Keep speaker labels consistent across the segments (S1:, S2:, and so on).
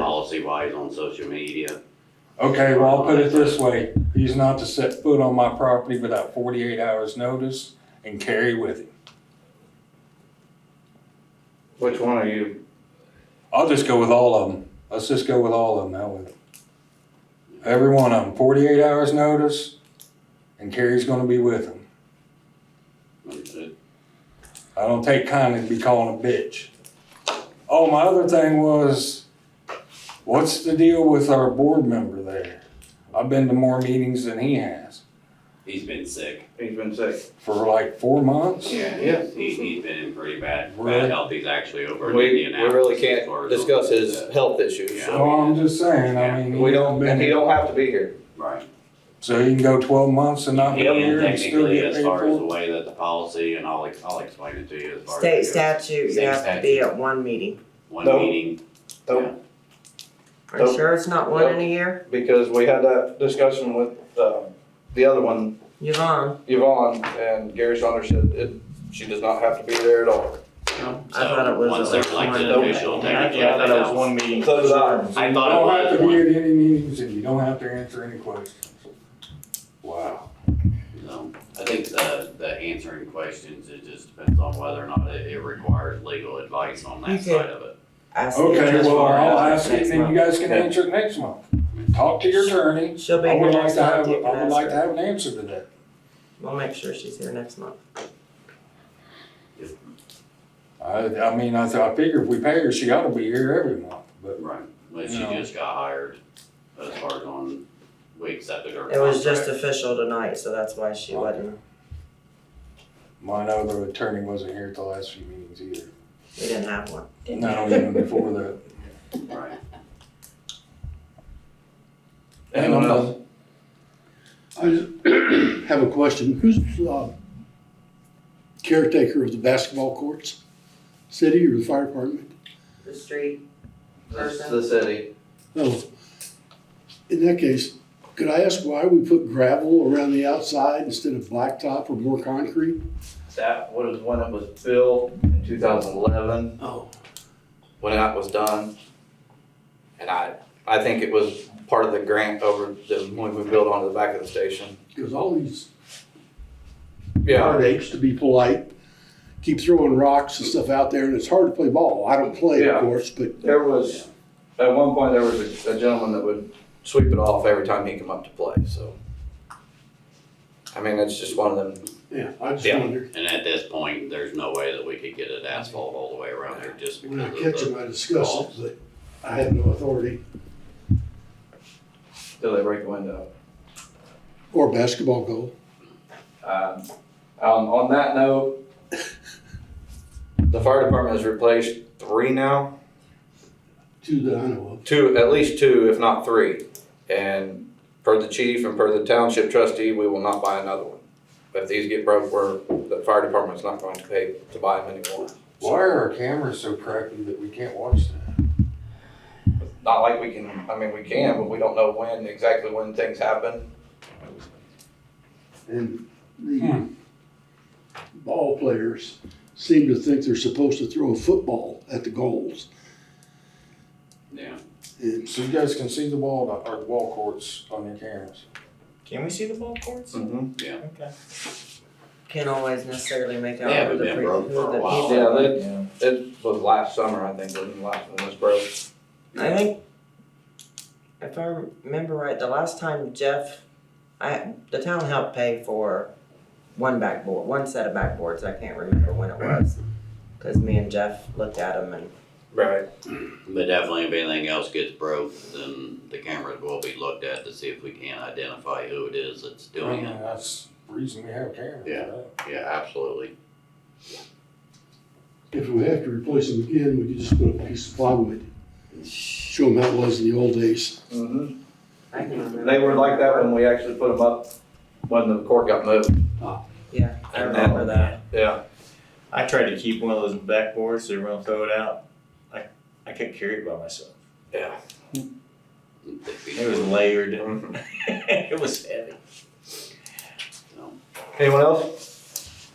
S1: policy wise on social media.
S2: Okay, well, I'll put it this way, he's not to set foot on my property without forty-eight hours' notice and carry with him.
S3: Which one are you?
S2: I'll just go with all of them, let's just go with all of them, that way. Every one of them, forty-eight hours' notice, and Carrie's gonna be with him.
S1: Understood.
S2: I don't take kindly to be called a bitch. Oh, my other thing was, what's the deal with our board member there? I've been to more meetings than he has,
S1: He's been sick.
S3: He's been sick.
S2: for like four months.
S1: Yeah,
S3: yeah.
S1: He, he's been in pretty bad,
S2: Really?
S1: bad health. He's actually over in
S4: We, we
S1: Indianapolis.
S4: really
S1: as
S4: can't
S1: far as-
S4: discuss his health issues,
S1: Yeah.
S4: so.
S2: Well, I'm just saying, I mean.
S4: We
S2: he's
S4: don't,
S2: been-
S4: and he don't have to be here.
S1: Right.
S2: So he can go twelve months and not be here
S1: And
S2: and still
S1: technically,
S2: get
S1: as
S2: paid
S1: far
S2: for
S1: as
S2: it?
S1: the way that the policy, and I'll, I'll explain it to you as far as.
S5: State
S1: it goes.
S5: statute, you
S1: State
S5: have to be at one meeting.
S1: One
S4: No.
S1: meeting.
S3: Oh.
S4: Nope.
S5: Are you
S4: Nope.
S5: sure it's not one in a year?
S4: Because we had that discussion with, uh, the other one,
S5: Yvonne,
S4: Yvonne, and Gary Saunders said it, she does not have to be there at all.
S1: So,
S5: I thought it was
S1: once there's
S5: like
S1: like
S5: one.
S1: an official, technically, I thought it was.
S3: meeting.
S4: So did I.
S1: I
S2: You
S1: thought
S2: don't
S1: it
S2: have to
S1: was
S2: be
S1: one.
S2: at any meetings and you don't have to answer any questions. Wow.
S1: So, I think the, the answering questions, it just depends on whether or not it, it requires legal advice on that
S5: Okay.
S1: side of it.
S5: ask you
S2: Okay,
S5: just
S2: well,
S5: for
S2: I'll
S5: us
S2: ask it
S5: next
S2: and then you
S5: month.
S2: guys can answer it next month. Talk to your attorney.
S5: She'll be
S2: I
S5: here
S2: would like
S5: next
S2: to have,
S5: month,
S2: I
S5: you can
S2: would like
S5: ask
S2: to
S5: her.
S2: have an answer to that.
S5: We'll make sure she's here next month.
S2: I, I mean, I thought, I figure if we pay her, she ought to be here every month, but
S1: Right. But she
S2: No.
S1: just got hired as far as on, we accepted her.
S5: It was just
S1: contract.
S5: official tonight, so that's why she wasn't,
S2: my other attorney wasn't here at the last few meetings either.
S5: we didn't have one.
S2: Not even before that.
S1: Right.
S4: Anyone else?
S6: I just have a question. Who's uh, caretaker of the basketball courts? City or the fire department?
S5: The street
S4: It's the city.
S6: No. In that case, could I ask why we put gravel around the outside instead of blacktop or more concrete?
S4: That was when it was built in two thousand eleven,
S1: Oh.
S4: when that was done. And I, I think it was part of the grant over, the when we built onto the back of the station.
S6: Because all these
S4: Yeah,
S6: hard apes, to be polite, keep throwing rocks and stuff out there, and it's hard to play ball. I don't play,
S4: Yeah.
S6: of course, but
S4: there was, at one point, there was a a gentleman that would sweep it off every time he come up to play, so. I mean, it's just one of them,
S6: yeah, I just
S4: Yeah.
S6: wonder.
S1: And at this point, there's no way that we could get it asphalt all the way around there just
S6: When
S1: because
S6: I
S1: of
S6: catch
S1: the.
S6: them, I discuss it, but I have no authority.
S4: till they break the window.
S6: Or basketball goal.
S4: Um, um, on that note, the fire department has replaced three now,
S6: Two that I know
S4: two, at least two, if not three. And per the chief and per the township trustee, we will not buy another one. If these get broke, we're, the fire department's not going to pay to buy them anymore.
S2: Why are our cameras so crappy that we can't watch that?
S4: Not like we can, I mean, we can, but we don't know when, exactly when things happen.
S6: of. And the
S2: Hmm.
S6: ball players seem to think they're supposed to throw a football at the goals.
S1: Yeah.
S6: And
S2: So you guys can see the wall, our wall courts on your cameras.
S7: Can we see the ball courts?
S4: Mm-hmm.
S7: Okay.
S5: Can't always necessarily make out
S1: They
S5: who
S1: haven't
S5: the
S1: been
S5: pre-
S1: broke
S5: who
S1: for a
S5: the
S1: while.
S5: people-
S4: Yeah, that, it was last summer, I think, when the last one was broke.
S5: I think, if I remember right, the last time Jeff, I, the town helped pay for one backboard, one set of backboards, I can't remember when it was. Cause me and Jeff looked at them and,
S4: Right.
S1: But definitely if anything else gets broke, then the cameras will be looked at to see if we can identify who it is that's
S2: I mean,
S1: doing it.
S2: That's the reason we have cameras.
S1: Yeah.
S2: right?
S5: Uh-huh.
S1: Yeah, absolutely.
S6: if we have to replace them again, we could just put a piece of plywood, show them how it was in the old days.
S4: Mm-hmm.
S5: I can remember.
S4: They were like that when we actually put them up, when the court got moved.
S5: Yeah, I remember that.
S4: Yeah.
S7: I tried to keep one of those backboards, they were gonna throw it out. I, I couldn't carry it by myself.
S4: Yeah.
S7: It was layered.
S4: Mhm.
S7: it was heavy.
S4: Anyone else?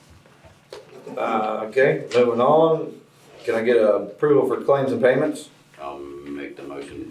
S4: Uh, okay, moving on. Can I get approval for claims and payments?
S1: I'll make the motion